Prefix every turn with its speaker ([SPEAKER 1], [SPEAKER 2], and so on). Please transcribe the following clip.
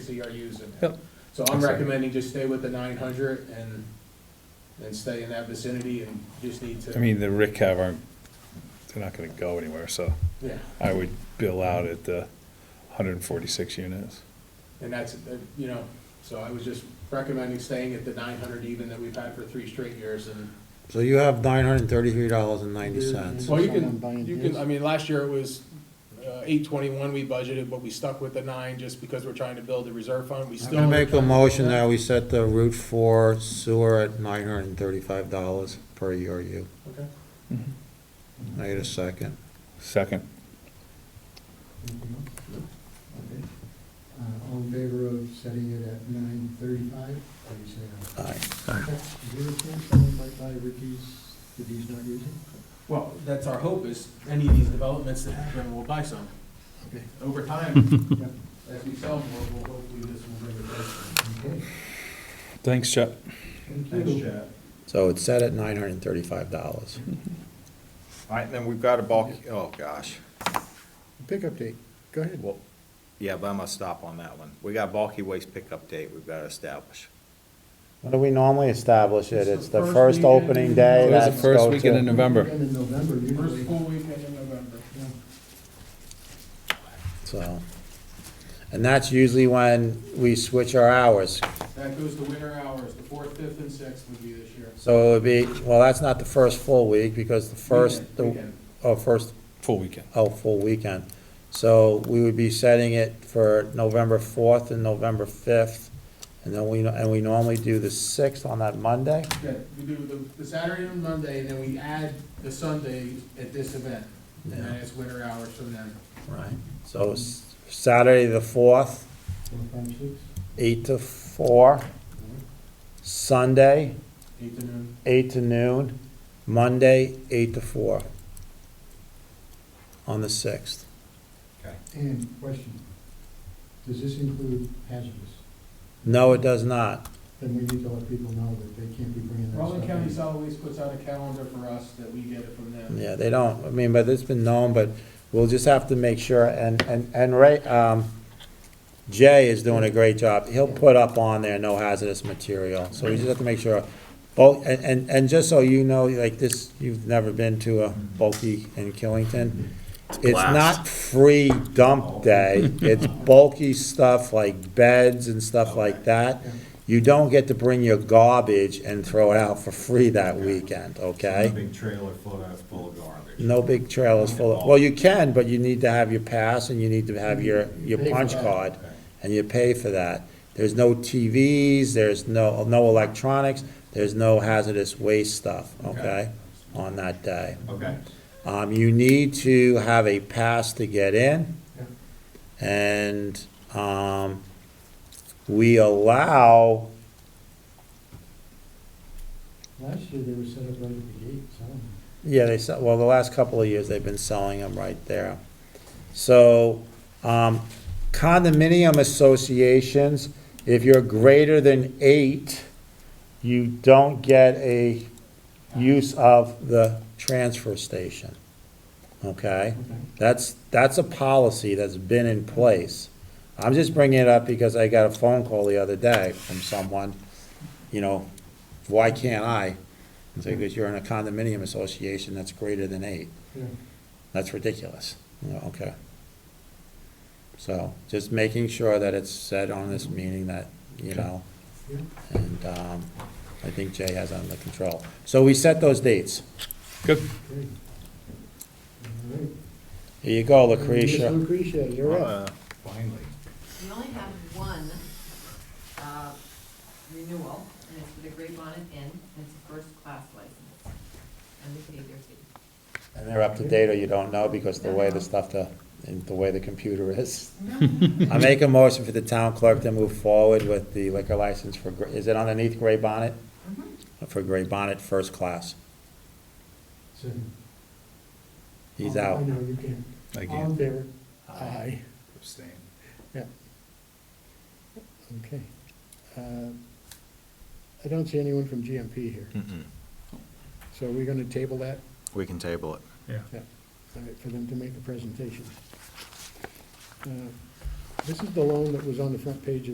[SPEAKER 1] are using.
[SPEAKER 2] Yep.
[SPEAKER 1] So I'm recommending just stay with the nine hundred and, and stay in that vicinity and just need
[SPEAKER 2] I
[SPEAKER 1] to,
[SPEAKER 2] mean, the RICAV aren't, they're not gonna go anywhere, so
[SPEAKER 1] yeah.
[SPEAKER 2] I would bill out at the hundred and forty-six units.
[SPEAKER 1] And that's, uh, you know, so I was just recommending staying at the nine hundred even that we've had for three straight years and,
[SPEAKER 3] So you have nine hundred and thirty-three dollars and ninety cents.
[SPEAKER 1] well, you
[SPEAKER 4] Someone
[SPEAKER 1] can,
[SPEAKER 4] buying
[SPEAKER 1] you can,
[SPEAKER 4] his?
[SPEAKER 1] I mean, last year it was, uh, eight twenty-one we budgeted, but we stuck with the nine just because we're trying to build a reserve fund, we
[SPEAKER 3] I'm
[SPEAKER 1] still.
[SPEAKER 3] gonna make a motion that we set the Route Four sewer at nine hundred and thirty-five dollars per E ERU.
[SPEAKER 1] Okay.
[SPEAKER 2] Mm-hmm.
[SPEAKER 3] I need a second.
[SPEAKER 2] Second,
[SPEAKER 4] Anything else? Okay. Uh, all in favor of setting it at nine thirty-five, please say
[SPEAKER 3] Aye.
[SPEAKER 4] aye. Is there a chance someone might buy Ricky's that he's not using?
[SPEAKER 1] Well, that's our hope is any of these developments that happen, we'll buy some.
[SPEAKER 4] Okay.
[SPEAKER 1] Over time,
[SPEAKER 4] Yep.
[SPEAKER 1] as we sell more, we'll hopefully this will bring it back.
[SPEAKER 4] Okay,
[SPEAKER 2] thanks, Chuck.
[SPEAKER 4] thank
[SPEAKER 1] Thanks,
[SPEAKER 4] you.
[SPEAKER 1] Chad.
[SPEAKER 3] So it's set at nine hundred and thirty-five dollars.
[SPEAKER 5] All right, then we've got a bulk, oh, gosh.
[SPEAKER 4] Pickup date, go ahead.
[SPEAKER 5] Well, yeah, but I'm gonna stop on that one. We got bulky waste pickup date we've gotta establish.
[SPEAKER 3] What do we normally establish it? It's the
[SPEAKER 1] It's the first
[SPEAKER 3] first
[SPEAKER 1] weekend
[SPEAKER 3] opening
[SPEAKER 1] in-
[SPEAKER 3] day,
[SPEAKER 2] It was the
[SPEAKER 3] that's
[SPEAKER 2] first
[SPEAKER 3] go
[SPEAKER 2] weekend in
[SPEAKER 3] to.
[SPEAKER 2] November.
[SPEAKER 4] End of November
[SPEAKER 1] First
[SPEAKER 4] usually.
[SPEAKER 1] full weekend in November.
[SPEAKER 4] Yeah.
[SPEAKER 3] So, and that's usually when we switch our hours.
[SPEAKER 1] That goes to winter hours, the fourth, fifth, and sixth would be this year.
[SPEAKER 3] So it would be, well, that's not the first full week because the first,
[SPEAKER 1] Weekend,
[SPEAKER 3] the,
[SPEAKER 1] weekend.
[SPEAKER 3] oh, first
[SPEAKER 2] Full weekend.
[SPEAKER 3] Oh, full weekend. So we would be setting it for November fourth and November fifth. And then we, and we normally do the sixth on that Monday.
[SPEAKER 1] Yeah, we do the, the Saturday and Monday, and then we add the Sunday at this event, and then it's winter hours from then.
[SPEAKER 3] Right. So it's Saturday the fourth,
[SPEAKER 4] Four, five, six.
[SPEAKER 3] eight to four. Sunday,
[SPEAKER 1] Eight to noon.
[SPEAKER 3] eight to noon. Monday, eight to four. On the sixth.
[SPEAKER 4] And question, does this include hazardous?
[SPEAKER 3] No, it does not.
[SPEAKER 4] Then we need to let people know that they can't be bringing that stuff.
[SPEAKER 1] Rutland
[SPEAKER 4] in.
[SPEAKER 1] County Solid Waste puts out a calendar for us that we get it from them.
[SPEAKER 3] Yeah, they don't, I mean, but it's been known, but we'll just have to make sure, and, and, and Ray, um, Jay is doing a great job, he'll put up on there no hazardous material, so we just have to make sure. Bulk, and, and, and just so you know, like this, you've never been to a bulky in Killington. It's not free dump day, it's bulky stuff like beds and stuff like that. You don't get to bring your garbage and throw it out for free that weekend, okay?
[SPEAKER 6] Big trailer full of, full of garbage.
[SPEAKER 3] No big trailers full of, well, you can, but you need to have your pass and you need to have your, your
[SPEAKER 4] Pay for
[SPEAKER 3] punch
[SPEAKER 4] that.
[SPEAKER 3] card. And you pay for that. There's no TVs, there's no, no electronics, there's no hazardous waste stuff, okay, on that day.
[SPEAKER 4] Mm-hmm.
[SPEAKER 6] Okay.
[SPEAKER 3] Um, you need to have a pass to get in.
[SPEAKER 4] Yeah.
[SPEAKER 3] And, um, we allow,
[SPEAKER 4] Last year, they were set up right at the gate, so.
[SPEAKER 3] Yeah, they sell, well, the last couple of years, they've been selling them right there. So, um, condominium associations, if you're greater than eight, you don't get a use of the transfer station. Okay?
[SPEAKER 4] Okay.
[SPEAKER 3] That's, that's a policy that's been in place. I'm just bringing it up because I got a phone call the other day from someone, you know, why can't I? It's like, because you're in a condominium association that's greater than eight.
[SPEAKER 4] Yeah.
[SPEAKER 3] That's ridiculous. You know, Okay. So just making sure that it's said on this meeting that, you know,
[SPEAKER 4] Yeah.
[SPEAKER 3] and um, I think Jay has under control. So we set those dates.
[SPEAKER 2] Good.
[SPEAKER 4] Great. All right.
[SPEAKER 3] Here you go,
[SPEAKER 4] Miss
[SPEAKER 3] Lucretia.
[SPEAKER 4] Lucretia, you're up.
[SPEAKER 5] Uh, Finally.
[SPEAKER 7] We only have one uh, renewal, and it's for the Great Bonnet Inn, and it's a first-class license, and they paid their fee.
[SPEAKER 3] And they're up to date or you don't know because the way the stuff, the, and the way the computer is. I make a motion for the town clerk to move forward with the liquor license for, Gr- is it underneath Gray Bonnet?
[SPEAKER 7] Mhm.
[SPEAKER 4] Mm-hmm.
[SPEAKER 3] For Gray Bonnet, first class.
[SPEAKER 4] Second.
[SPEAKER 3] He's
[SPEAKER 4] Oh, I
[SPEAKER 3] out.
[SPEAKER 4] know, you can.
[SPEAKER 2] I
[SPEAKER 4] All in
[SPEAKER 2] can't
[SPEAKER 4] favor? Aye.
[SPEAKER 2] abstain.
[SPEAKER 4] Yeah. Okay. Uh, I don't see anyone from GMP here,
[SPEAKER 5] Mm-mm.
[SPEAKER 4] so are we gonna table that?
[SPEAKER 5] We can table it.
[SPEAKER 4] Yeah. All right, for them to make the presentation. Uh, This is the loan that was on the front page of